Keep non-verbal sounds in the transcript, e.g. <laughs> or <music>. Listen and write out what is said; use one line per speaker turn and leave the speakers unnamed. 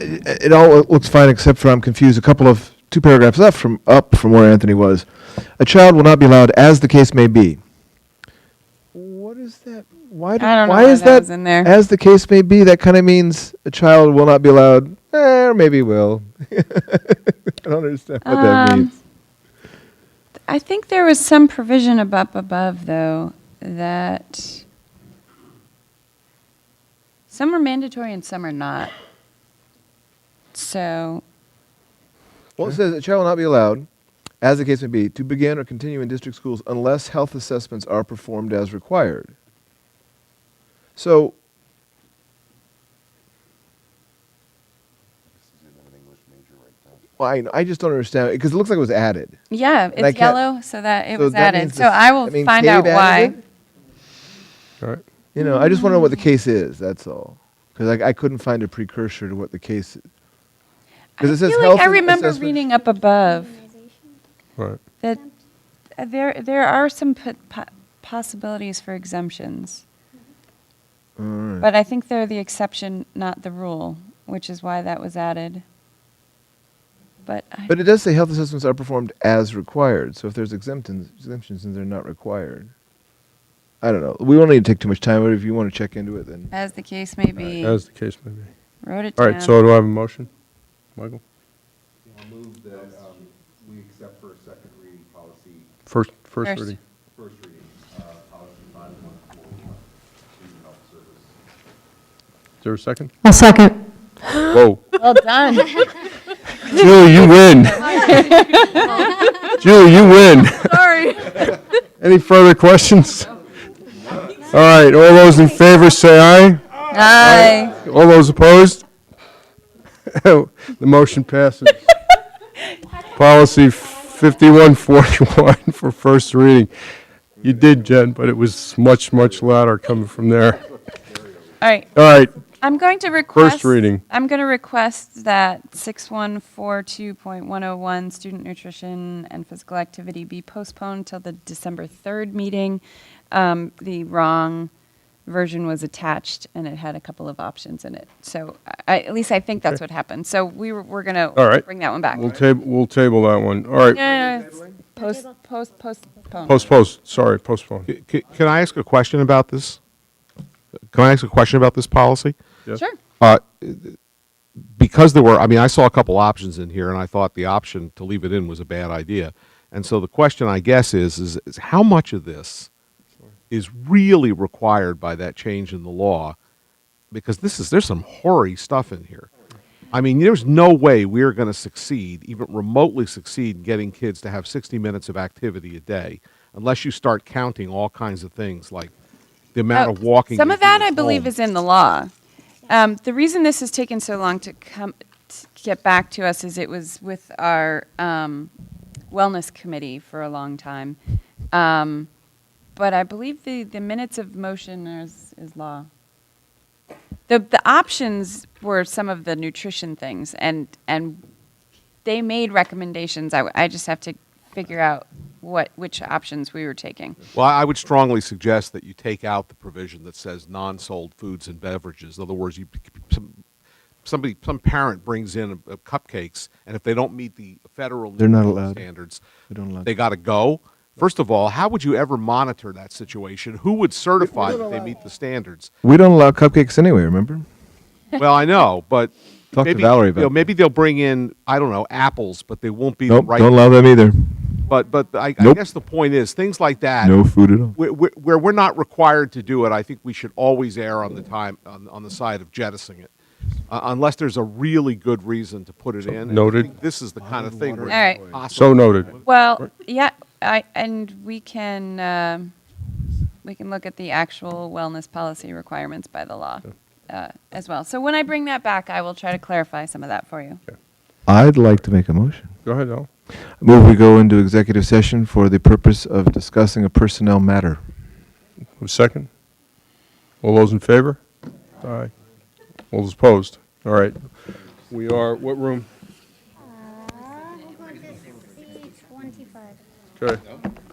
it it all looks fine except for I'm confused. A couple of two paragraphs up from up from where Anthony was. A child will not be allowed, as the case may be. What is that? Why? do-
I don't know
why
why
is
that was in there.
As the case may be, that kind of means a child will not be allowed, eh, or maybe will. <laughs> I don't understand what that
Um,
means.
I think there was some provision ab- up above, though, that some are mandatory and some are not. So,
Well, it says a child will not be allowed, as the case may be, to begin or continue in district schools unless health assessments are performed as required. So, well, I, I just don't understand because it looks like it was added.
yeah,
I
it's
can't-
yellow, so that it
so
was
that
added.
means
So
this-
I will
that means
find
Cade
out
added
why.
it?
All right.
You know, I just want to know what the case is. That's all, because I, I couldn't find a precursor to what the case. Because it
I
says
feel
health.
like I
and
remember
assessment-
reading up above
All right.
that uh, there, there are some po- po- possibilities for exemptions.
All right.
But I think they're the exception, not the rule, which is why that was added. But I,
But it does say health assessments are performed as required. So if there's exemptions, exemptions, then they're not required. I don't know. We won't need to take too much time, but if you want to check into it, then
as the case may
All right,
be,
As the case may be.
wrote it
All
down.
right, so do I have a motion? Michael?
I'll move that um, we accept for a second reading policy,
First, first
First.
reading.
first reading, uh, policy 5141, student health service.
Is there a second?
I'll second.
Whoa.
Well done.
<laughs> Julie, you
<laughs>
win. Julie, you win. <laughs>
Sorry.
Any further questions? All right, all those in favor say aye.
Aye.
All those opposed? <laughs> The motion passes. Policy 5141 <laughs> for first reading. You did, Jen, but it was much, much louder coming from there.
All right.
All right,
I'm going to request.
reading.
I'm going to request that 6142.101, student nutrition and physical activity, be postponed till the December 3rd meeting. Um, The wrong version was attached, and it had a couple of options in it. So I, at least I think that's what happened. So we were, we're going
All
to
right.
bring that one back.
we'll table, we'll table that one. All right,
Yeah, yeah, yeah. Post, post, postpone.
Postpone, sorry, postpone.
C- c- Can I ask a question about this? Can I ask a question about this policy?
Yes.
Sure.
Uh, Because there were, I mean, I saw a couple options in here, and I thought the option to leave it in was a bad idea. And so the question, I guess, is, is is how much of this is really required by that change in the law? Because this is, there's some hoary stuff in here. I mean, there's no way we're going to succeed, even remotely succeed, in getting kids to have 60 minutes of activity a day unless you start counting all kinds of things like the amount
Oh,
of walking.
Some
you
of
do
that,
at
I believe,
home.
is in the law. Um, the reason this has taken so long to come to get back to us is it was with our um, wellness committee for a long time. Um, but I believe the, the minutes of motion is, is law. The, the options were some of the nutrition things, and, and they made recommendations. I, w- I just have to figure out what which options we were taking.
Well, I would strongly suggest that you take out the provision that says non-sold foods and beverages. In other words, you, some, somebody, some parent brings in uh, cupcakes, and if they don't meet the federal
They're not
nutrition
allowed.
standards,
We don't allow-
they got to go. First of all, how would you ever monitor that situation? Who would certify that they meet the standards?
we don't allow cupcakes anyway. Remember?
Well, I know, but
<laughs> Talk to
maybe,
Valerie
you know,
about that.
maybe they'll bring in I don't know apples, but they won't be
Nope.
the right.
Don't allow them either.
but but I, I
Nope.
guess the point is things like that
No food at all.
where, where- where we're not required to do it, I think we should always err on the time on, on the side of jettisoning it, uh, unless there's a really good reason to put it in. And I
noted.
think This is the kind of thing. where
All right.
it's possible.
So noted.
Well, yeah, I, and we can, um, we can look at the actual wellness policy requirements by the law uh, as well. So when I bring that back, I will try to clarify some of that for you.
I'd like to make a motion.
Go ahead, Al.
Move we go into executive session for the purpose of discussing a personnel matter.
A Second? All those in favor? Aye. All those opposed? All right. We are, what room?
I'm going to see 25.
Okay.